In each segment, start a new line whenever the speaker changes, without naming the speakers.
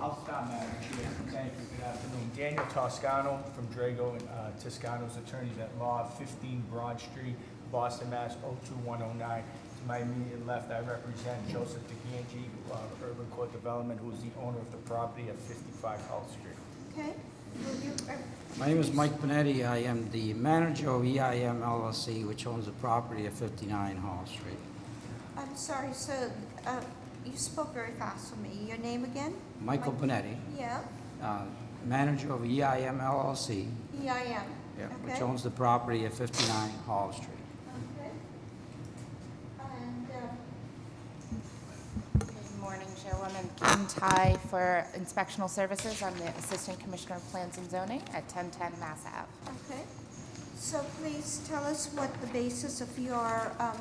I'll stop, Madam Chair. Thank you. Good afternoon. Daniel Toscano from Drago and uh, Toscano's Attorneys at Law, 15 Broad Street, Boston, Mass. 02109. To my immediate left, I represent Joseph DeGangi, uh, Urban Court Development, who is the owner of the property at 55 Hull Street.
Okay, will you, uh,
My name is Mike Benetti. I am the manager of E EIM LLC, which owns the property at 59 Hall Street.
I'm sorry, so, uh, you spoke very fast to me. Your name again?
Michael
Mike-
Benetti,
Yeah,
uh, manager of E EIM LLC,
EIM.
yeah, which
E Okay.
owns the property at 59 Hall Street.
Okay. And, uh,
Good morning, Jill. I'm in Kim Tai for Inspectional Services. I'm the Assistant Commissioner of Plans and Zoning at 1010 Mass Ave.
okay, so please tell us what the basis of your, um,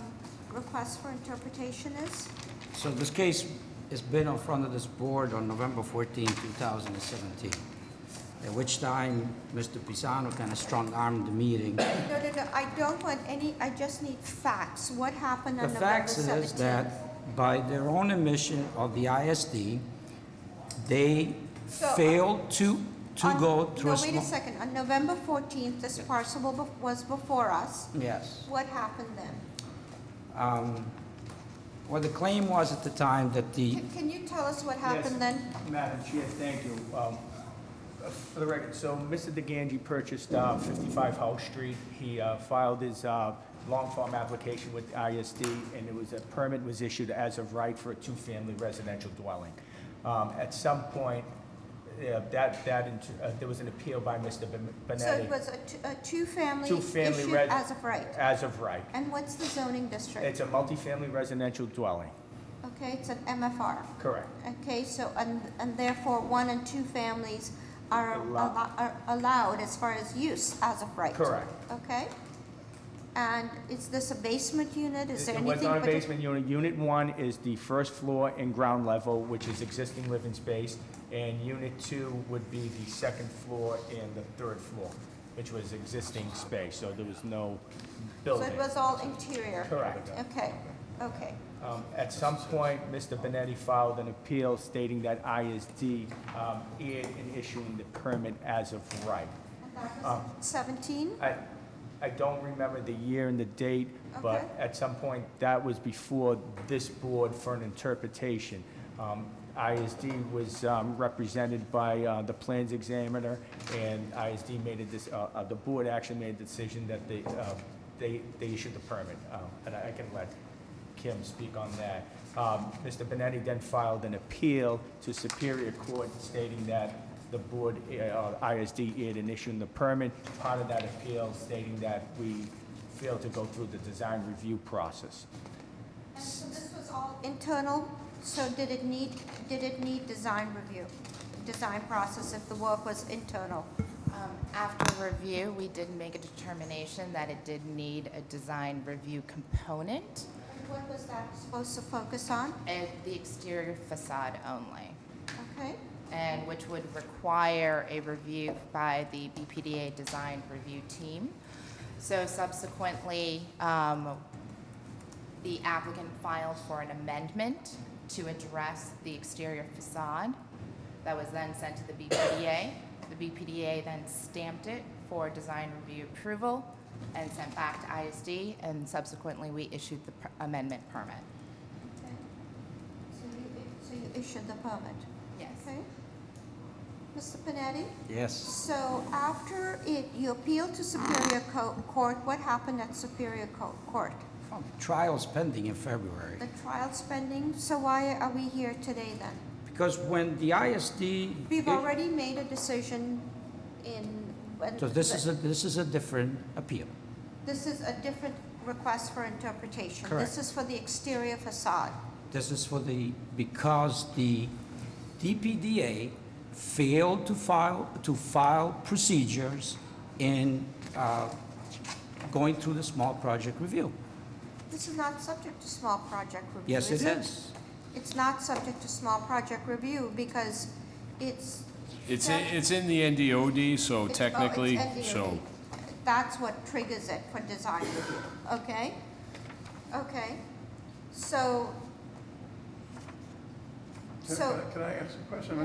request for interpretation is?
So this case has been in front of this board on November 14, 2017, at which time Mr. Pisano kind of strong-armed the meeting
No, no, no, I don't want any, I just need facts. What happened
The
on November
fact
seventeenth?
is that by their own admission of the ISD, they
So, uh,
failed to, to
On-
go through a
No, wait
small...
a second. On November 14th, this parcel bef- was before us.
Yes.
What happened then?
Um, Well, the claim was at the time that the,
Can- Can you tell us what happened
Yes,
then?
Madam Chair, thank you. Um, uh, For the record, so Mr. DeGangi purchased uh, 55 House Street. He uh, filed his uh, long form application with ISD, and it was, a permit was issued as of right for a two-family residential dwelling. Um, At some point, yeah, that, that, int- uh, there was an appeal by Mr. Ben-
So
Benetti.
it was a t- a two-family
Two-family
issued
res-
as of right.
As of right.
And what's the zoning district?
It's a multifamily residential dwelling,
Okay, it's an MFR.
correct.
Okay, so, and and therefore, one and two families are
Allow-
allo- are allowed as far as use as of right.
Correct.
Okay? And is this a basement unit? Is there
It
anything?
was not a
partic-
basement unit. Unit one is the first floor and ground level, which is existing living space, and unit two would be the second floor and the third floor, which was existing space, so there was no
So
building.
it was all interior?
Correct.
Okay, okay.
Um, At some point, Mr. Benetti filed an appeal stating that ISD um, erred in issuing the permit as of right.
And that
Uh,
was 17?
I, I don't remember the year and the date, but
Okay.
at some point, that was before this board for an interpretation. Um, ISD was um, represented by uh, the plans examiner, and ISD made a, dec- uh, uh, the board actually made a decision that they, uh, they, they issued the permit. Uh, And I I can let Kim speak on that. Um, Mr. Benetti then filed an appeal to Superior Court stating that the board, uh, ISD, erred in issuing the permit. Part of that appeal stating that we failed to go through the design review process.
And so this was all internal, so did it need, did it need design review? Design process if the work was internal?
Um, After review, we did make a determination that it did need a design review component
And what was that supposed to focus on?
and the exterior facade only,
Okay,
and which would require a review by the BPDA design review team. So subsequently, um, the applicant filed for an amendment to address the exterior facade that was then sent to the BPDA. The BPDA then stamped it for design review approval and sent back to ISD, and subsequently, we issued the per- amendment permit.
okay. So you, so you issued the permit,
Yes.
okay? Mr. Panetti?
yes,
So after it, you appealed to Superior Co- Court, what happened at Superior Co- Court?
trial's pending in February.
The trial spending, so why are we here today then?
Because when the ISD...
We've already made a decision in. when-
So this is a, this is a different appeal.
This is a different request for interpretation. This
Correct.
is for the exterior facade.
This is for the, because the DPDA failed to file, to file procedures in uh, going through the small project review.
This is not subject to small project review,
Yes, it
is
is.
It's not subject to small project review because it's.
It's, in- it's in the NDOD, so
It's- oh, it's
technically,
NDOD.
so.
That's what triggers it for design review, okay? Okay, so.
Can
So.
can I ask a question?